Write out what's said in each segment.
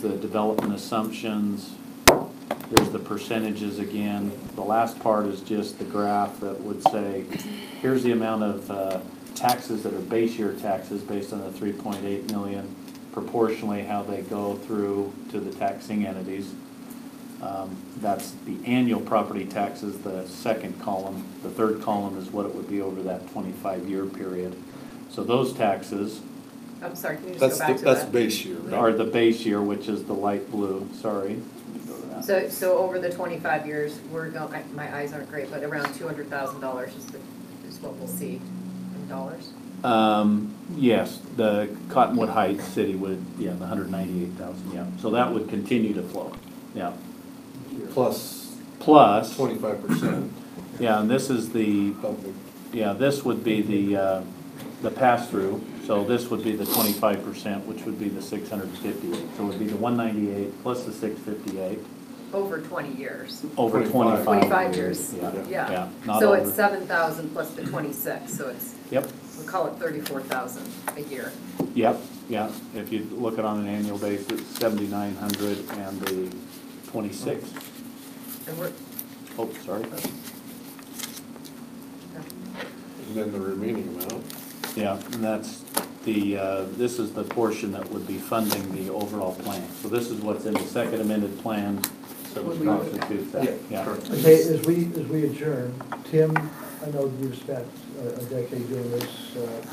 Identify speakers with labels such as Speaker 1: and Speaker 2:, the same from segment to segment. Speaker 1: the development assumptions, there's the percentages again. The last part is just the graph that would say, here's the amount of uh, taxes that are base year taxes based on the three point eight million, proportionally how they go through to the taxing entities. Um, That's the annual property taxes, the second column. The third column is what it would be over that twenty-five year period. So those taxes
Speaker 2: I'm sorry, can you
Speaker 3: That's,
Speaker 2: just go
Speaker 3: the-
Speaker 2: back to
Speaker 3: that's
Speaker 2: that?
Speaker 3: base year,
Speaker 1: are
Speaker 3: right?
Speaker 1: the base year, which is the light blue, sorry.
Speaker 2: So, so over the twenty-five years, we're going, I- my eyes aren't great, but around two hundred thousand dollars is the, is what we'll see in dollars.
Speaker 1: Um, yes, the Cottonwood Heights city would, yeah, the hundred ninety-eight thousand, yeah, so that would continue to flow, yeah.
Speaker 3: Plus
Speaker 1: Plus,
Speaker 3: twenty-five percent
Speaker 1: yeah, and this is the,
Speaker 3: of the,
Speaker 1: yeah, this would be the, uh, the pass-through, so this would be the twenty-five percent, which would be the six hundred and fifty-eight, so it would be the one ninety-eight plus the six fifty-eight,
Speaker 2: Over twenty years,
Speaker 1: over twenty-five.
Speaker 3: Twenty-five.
Speaker 2: twenty-five years,
Speaker 1: Yeah,
Speaker 2: yeah.
Speaker 1: yeah, not
Speaker 2: So
Speaker 1: over.
Speaker 2: it's uh, seven thousand plus the twenty-six, so it's,
Speaker 1: Yep,
Speaker 2: we call it thirty-four thousand a year.
Speaker 1: Yep, yeah, if you look at it on an annual basis, seventy-nine hundred and the twenty-six.
Speaker 2: And we're,
Speaker 1: Oh, sorry.
Speaker 2: uh,
Speaker 3: and then the remaining amount.
Speaker 1: Yeah, and that's the, uh, this is the portion that would be funding the overall plan. So this is what's in the second amended plan, so
Speaker 2: When
Speaker 1: it
Speaker 2: we-
Speaker 1: constitutes that, yeah.
Speaker 4: Okay, as we, as we adjourn, Tim, I know you've spent a a decade doing this. uh,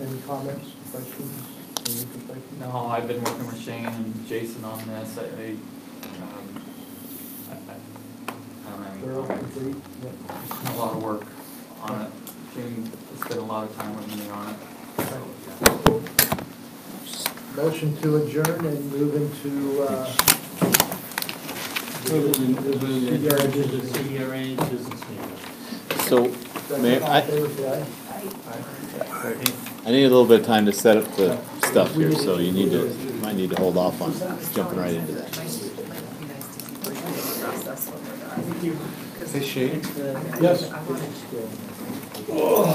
Speaker 4: Any comments, questions, from your perspective?
Speaker 5: No, I've been working with Shane and Jason on this, I, I, um, I, I- I don't
Speaker 4: Thorough,
Speaker 5: know,
Speaker 4: complete? Yeah.
Speaker 5: a lot of work on it. Shane has spent a lot of time with me on it, so, yeah.
Speaker 4: Motion to adjourn and move into, uh,
Speaker 6: CDRA business, CDRA business meeting.
Speaker 7: So Mayor, I-
Speaker 4: all in favor, say aye.
Speaker 7: I need a little bit of time to set up the stuff here, so you need to, might need to hold off on jumping right into that.
Speaker 2: that.
Speaker 3: Hey Shane,
Speaker 4: Yes.
Speaker 2: I wanted to-